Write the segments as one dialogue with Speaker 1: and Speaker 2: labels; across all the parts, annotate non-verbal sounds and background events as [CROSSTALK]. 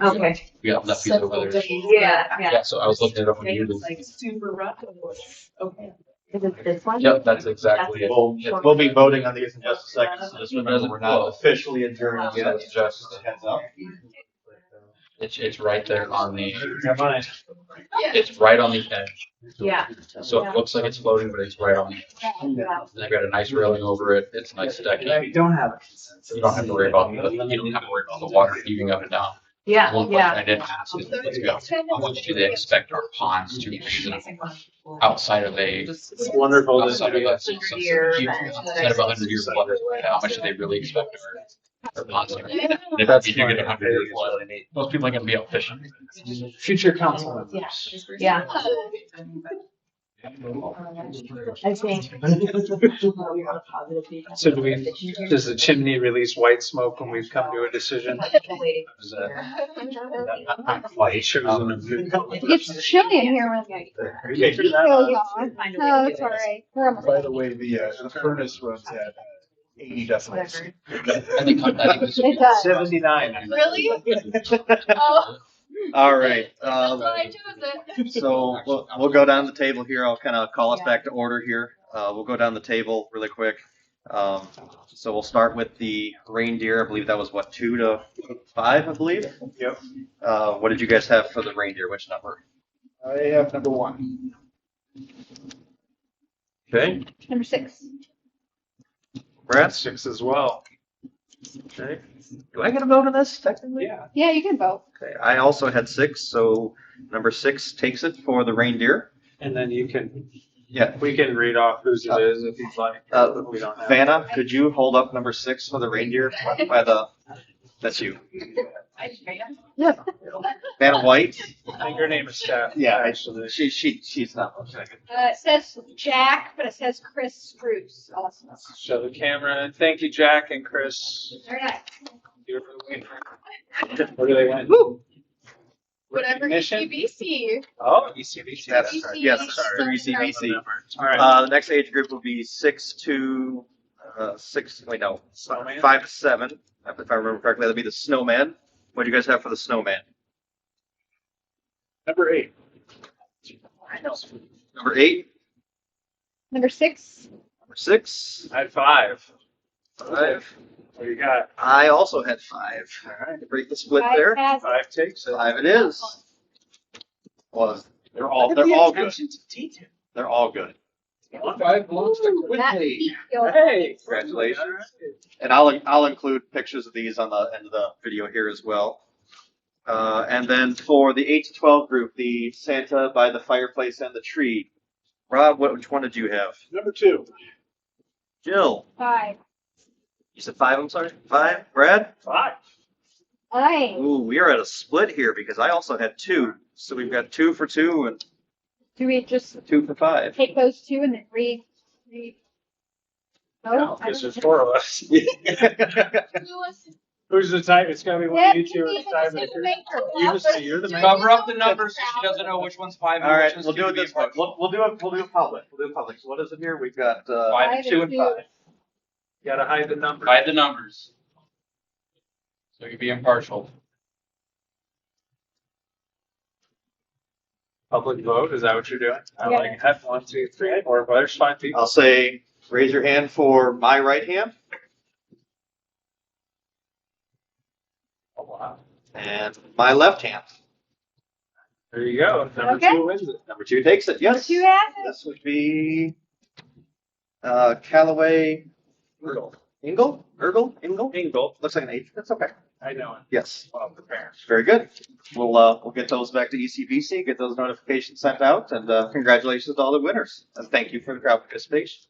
Speaker 1: Okay.
Speaker 2: We got left over
Speaker 3: Several
Speaker 2: there.
Speaker 3: days.
Speaker 1: Yeah, yeah.
Speaker 2: Yeah, so I was looking it up on
Speaker 3: Maybe
Speaker 2: YouTube.
Speaker 3: it's like super rough. Okay.
Speaker 1: Is it this one?
Speaker 2: Yep, that's exactly it.
Speaker 4: We'll,
Speaker 2: Yeah.
Speaker 4: we'll be voting on these in just a second, so just remember,
Speaker 2: Doesn't-
Speaker 4: we're not officially adjourned
Speaker 2: Yeah.
Speaker 4: yet, it's just a heads up.
Speaker 2: It's, it's right there on the,
Speaker 4: Never mind.
Speaker 2: it's right on the edge.
Speaker 1: Yeah.
Speaker 2: So it looks like it's floating, but it's right on the edge.
Speaker 1: Yeah.
Speaker 2: And I got a nice railing over it. It's nice decking.
Speaker 5: You don't have a consensus.
Speaker 2: You don't have to worry about the, you don't have to worry about the water heaving up and down.
Speaker 1: Yeah,
Speaker 2: One question
Speaker 1: yeah.
Speaker 2: I did ask is, let's go. How much do they expect our ponds to reason outside of a,
Speaker 4: It's wonderful to
Speaker 2: outside of a,
Speaker 1: Hundred years and-
Speaker 2: outside of a hundred year flood? How much do they really expect our, our ponds to reason? And If
Speaker 5: That's
Speaker 2: you do get
Speaker 5: fine.
Speaker 2: a hundred year flood, most people are gonna be out fishing.
Speaker 5: Future council members.
Speaker 1: Yeah. I think.
Speaker 5: [LAUGHS] So do we,
Speaker 1: [LAUGHS]
Speaker 5: does the chimney release white smoke when we've come to a decision? Is that-
Speaker 4: Not not quite.
Speaker 5: Sure.
Speaker 6: It's chilly in here with me.
Speaker 4: Okay,
Speaker 6: Oh, God. No, it's all right. We're almost.
Speaker 7: By the way, the, uh, the furnace runs at eighty decibels.
Speaker 2: I think, I [LAUGHS]
Speaker 1: [LAUGHS]
Speaker 2: think this would be-
Speaker 6: It does.
Speaker 5: Seventy-nine.
Speaker 6: Really?
Speaker 5: [LAUGHS]
Speaker 4: Oh. All right, um,
Speaker 3: [LAUGHS]
Speaker 4: so we'll, we'll go down the table here. I'll kind of call us back to order here. Uh, we'll go down the table really quick. Um, so we'll start with the reindeer. I believe that was what, two to five, I believe?
Speaker 7: Yep.
Speaker 4: Uh, what did you guys have for the reindeer? Which number?
Speaker 7: I have number one.
Speaker 4: Okay.
Speaker 6: Number six.
Speaker 4: Brad?
Speaker 7: Six as well.
Speaker 4: Okay. Do I get a vote on this technically?
Speaker 5: Yeah.
Speaker 6: Yeah, you can vote.
Speaker 4: Okay, I also had six, so number six takes it for the reindeer.
Speaker 5: And then you can,
Speaker 4: Yeah.
Speaker 5: we can read off whose it is if you'd like.
Speaker 4: Uh,
Speaker 5: We don't have.
Speaker 4: Vanna, could you hold up number six for the reindeer by the, that's you. Vanna White?
Speaker 5: I think her name is Steph.
Speaker 4: Yeah,
Speaker 5: Actually.
Speaker 4: She, she, she's not.
Speaker 6: Uh, it says Jack, but it says Chris Spruce also.
Speaker 5: Show the camera. Thank you, Jack and Chris.
Speaker 6: All right.
Speaker 5: You're for the win. What do they win?
Speaker 6: Whatever
Speaker 5: Recognition?
Speaker 6: UBC.
Speaker 5: Oh, ECBC.
Speaker 4: That's,
Speaker 6: ECBC.
Speaker 4: yes, through ECBC.
Speaker 5: All right.
Speaker 4: Uh, the next age group will be six to, uh, six, wait, no,
Speaker 5: Snowman?
Speaker 4: five to seven. If I remember correctly, that'd be the snowman. What do you guys have for the snowman?
Speaker 7: Number eight.
Speaker 4: Number eight,
Speaker 6: Number six.
Speaker 4: number six,
Speaker 5: High five.
Speaker 4: five.
Speaker 5: What do you got?
Speaker 4: I also had five. All right, break the split
Speaker 6: Five
Speaker 4: there.
Speaker 6: has-
Speaker 5: Five takes. it.
Speaker 4: Five it is. Well, they're all they're all good. They're all good.
Speaker 5: Five belongs to
Speaker 6: That
Speaker 5: Whitney.
Speaker 6: beat your-
Speaker 5: Hey,
Speaker 4: Congratulations. And I'll I'll include pictures of these on the end of the video here as well. Uh, and then for the eight to twelve group, the Santa by the fireplace and the tree. Rob, what, which one did you have?
Speaker 7: Number two.
Speaker 4: Jill.
Speaker 6: Five.
Speaker 4: You said five. I'm sorry. Five. Brad.
Speaker 7: Five.
Speaker 6: Aye.
Speaker 4: Ooh, we are at a split here because I also had two. So we've got two for two and
Speaker 6: Do we just
Speaker 4: two for five.
Speaker 6: take those two and then read? read?
Speaker 5: No,
Speaker 6: No? Oh, I
Speaker 5: Because
Speaker 6: don't-
Speaker 5: there's four of us. Who's the tie? It's gotta be
Speaker 6: Yeah,
Speaker 5: one of you two
Speaker 6: you
Speaker 5: or the
Speaker 6: can be the
Speaker 5: tiebreaker.
Speaker 6: decision maker.
Speaker 5: You just say you're the man.
Speaker 2: Cover up the numbers so she doesn't know which one's five
Speaker 4: All
Speaker 2: and
Speaker 4: right,
Speaker 2: which one's
Speaker 4: we'll do
Speaker 2: gonna
Speaker 4: it
Speaker 2: be
Speaker 4: this way. We'll, we'll do it. We'll do it public. We'll do it public. So what is it here? We've got uh,
Speaker 2: Five
Speaker 6: and
Speaker 4: two and
Speaker 6: two.
Speaker 4: five.
Speaker 5: Gotta hide the number.
Speaker 2: By the numbers. So you can be impartial.
Speaker 5: Public vote, is that what you're doing? I
Speaker 6: Yeah.
Speaker 5: like, have one, two, three, four, well, there's five people.
Speaker 4: I'll say raise your hand for my right hand
Speaker 5: Oh, wow.
Speaker 4: and my left hand.
Speaker 5: There you go. Number
Speaker 6: Okay.
Speaker 5: two wins it.
Speaker 4: Number two takes it.
Speaker 6: Number
Speaker 4: Yes.
Speaker 6: two has it.
Speaker 4: This would be uh, Callaway Ergle. Ingle? Ergle? Ingle?
Speaker 5: Ingle.
Speaker 4: Looks like an H. That's okay.
Speaker 5: I know it.
Speaker 4: Yes.
Speaker 5: Well, the parents.
Speaker 4: Very good. We'll uh, we'll get those back to ECBC, get those notifications sent out, and uh, congratulations to all the winners. And thank you for the crowd participation.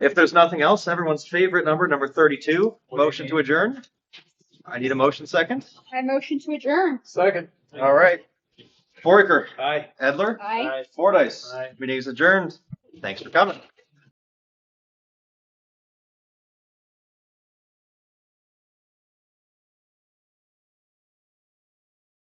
Speaker 4: If there's nothing else, everyone's favorite number, number 32,
Speaker 5: What do you
Speaker 4: motion to
Speaker 5: mean?
Speaker 4: adjourn. I need a motion second.
Speaker 6: I motion to adjourn.
Speaker 5: Second.
Speaker 4: All right. Foraker,
Speaker 5: Aye.
Speaker 4: Edler,
Speaker 6: Aye.
Speaker 4: Fordice,
Speaker 5: Aye.
Speaker 4: meeting is adjourned. Thanks for coming.